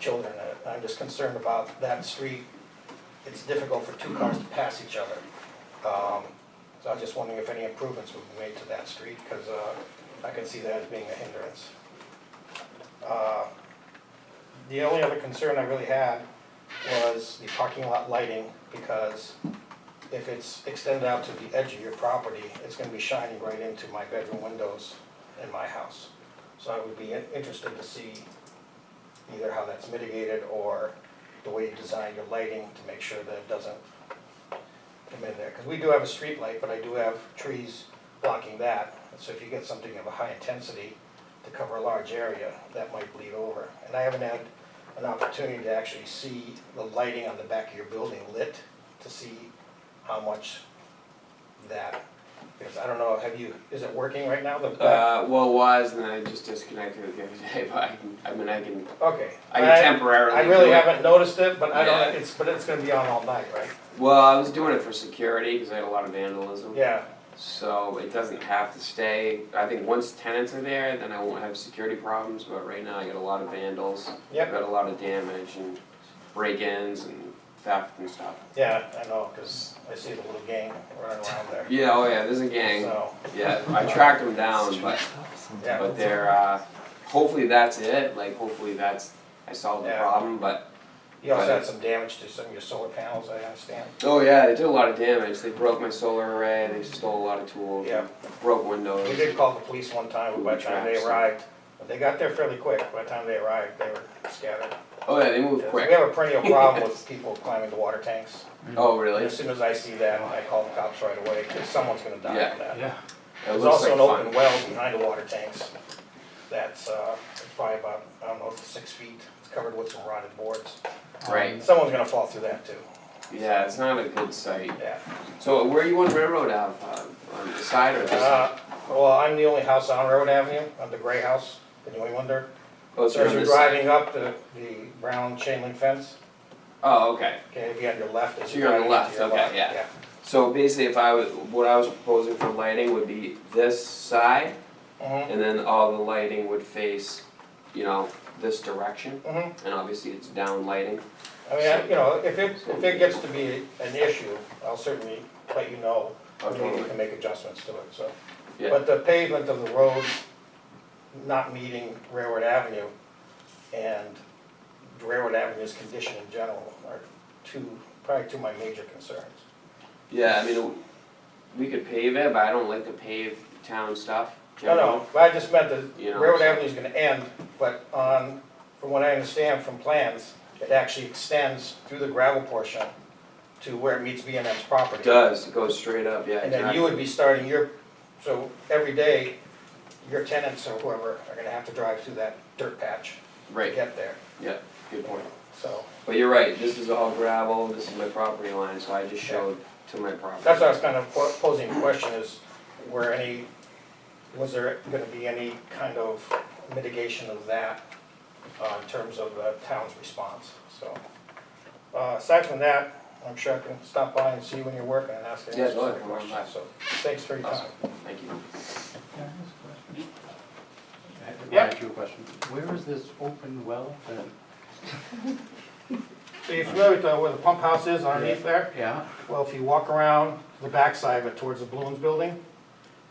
children in it. I'm just concerned about that street. It's difficult for two cars to pass each other. Um, So I was just wondering if any improvements would be made to that street, because I can see that as being a hindrance. Uh, The only other concern I really had was the parking lot lighting, because if it's extended out to the edge of your property, it's gonna be shining right into my bedroom windows in my house. So I would be in- interested to see either how that's mitigated or the way you design your lighting to make sure that it doesn't come in there. Because we do have a street light, but I do have trees blocking that. So if you get something of a high intensity to cover a large area, that might bleed over. And I haven't had an opportunity to actually see the lighting on the back of your building lit to see how much that, because I don't know, have you, is it working right now? The back- Uh, well, it was, and then I just disconnected it the other day, but I can, I mean, I can, Okay. I can temporarily. I really do it. haven't noticed it, but I Yeah. don't, it's, but it's gonna be on all night, right? Well, I was doing it for security, because I had a lot of vandalism. Yeah, So it doesn't have to stay, I think once tenants are there, then I won't have security problems, but right now I got a lot of vandals. I've yep, got a lot of damage and break-ins and theft and stuff. yeah, I know, cause I see the little gang running around there. Yeah, oh yeah, there's a gang, So, yeah, I tracked them down, but, yeah, but they're, uh, hopefully that's it, like, hopefully that's, I solved the Yeah. problem, but. you also had some damage to some of your solar panels, I understand. Oh yeah, they did a lot of damage, they broke my solar array, they stole a lot of tools. Yeah. Broke windows. We did call the police one time, but by the time they arrived, but they got there fairly quick, by the time they arrived, they were scattered. Oh yeah, they moved We quick, have a perennial problem with people climbing the water tanks. oh And really? As soon as I see that, I call the cops right away, cause someone's gonna die Yeah. from that. Yeah, It There's looks also an like fun. open well behind the water tanks that's, uh, it's probably about, I don't know, six feet. It's covered with some rotted boards. Right. Someone's gonna fall through that too, Yeah, it's not a good site. yeah. So where you on Railroad Ave, uh, on the side or this? side? Uh, well, I'm the only house on Railroad Avenue, I'm the gray house, the New Englander. Oh, it's So as on you're this side. driving up the, the brown chain link fence, Oh, okay. okay, if you're on your left, as So you're you're on the driving into your left, left, okay, yeah. So basically, if I was, what I was proposing for lighting would be this side, yeah. and then all the lighting would face, you know, this direction, hmm hmm and obviously it's down lighting. I mean, I- you know, if it, if it gets to be an issue, I'll certainly let you know. Oh, and Maybe we totally. can make adjustments to it, so. Yeah. But the pavement of the road not meeting Railroad Avenue and Railroad Avenue's condition in general are two, probably two of my major concerns. Yeah, I mean, we could pave it, but I don't like to pave town stuff. No, generally. no, but I just meant that You know, Railroad so- Avenue's gonna end, but on, from what I understand from plans, it actually extends through the gravel portion to where it meets B and M's property. It does, it goes straight up, yeah, And then you exactly. would be starting your, so every day, your tenants or whoever are gonna have to drive through that dirt patch to Right, get there, yeah, good point. so. But you're right, this is all gravel, this is my property line, so I just showed to my property. That's what I was kind of po- posing the question is, were any, was there gonna be any kind of mitigation of that uh, in terms of the town's response, so. uh, Aside from that, I'm sure I can stop by and see you when you're working and ask any Yeah, go ahead, specific come on by. questions, so, thanks for your time. Thank you. I Yeah. ask you a question. Where is this open well that? So you familiar with uh, where the pump house is underneath there? Yeah, Well, if you walk around the backside of it towards the Blooms Building,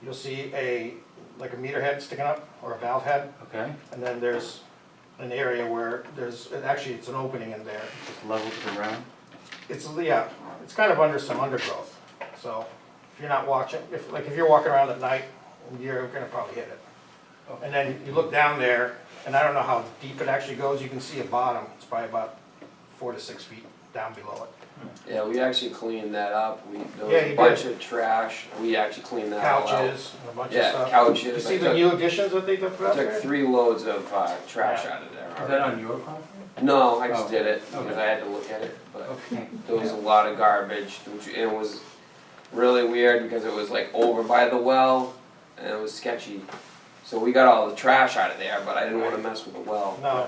you'll see a, like a meter head sticking up or a valve head. okay, And then there's an area where there's, and actually, it's an opening in there. just level to the ground? It's, yeah, it's kind of under some undergrowth. So if you're not watching, if, like, if you're walking around at night, you're gonna probably hit it. And then you look down there, and I don't know how deep it actually goes, you can see a bottom. It's probably about four to six feet down below it. Yeah, we actually cleaned that up, we, there was Yeah, a you bunch of trash, we actually cleaned that all out. Couches, and a bunch of Oh, Yeah, stuff. You couches, I see the took, new additions that they took out took there? three loads of, uh, trash Yeah. out of there Is that already. on your property? No, I just Oh. did it, because Okay. I had to look at it, but Okay. there was a lot of garbage, which, and it was really weird, because it was like over by the well, and it was sketchy. So we got all the trash out of there, but I didn't wanna mess with the well. No,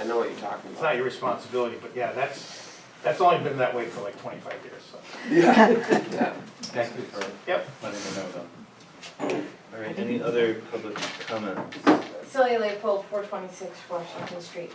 I know what you're talking it's not about. your responsibility, but yeah, that's, that's only been that way for like twenty-five years, so. Yeah, yeah. Thank you for Yep. letting me know though. All right, any other public comments? Celia Leopold, four twenty-six Washington Street.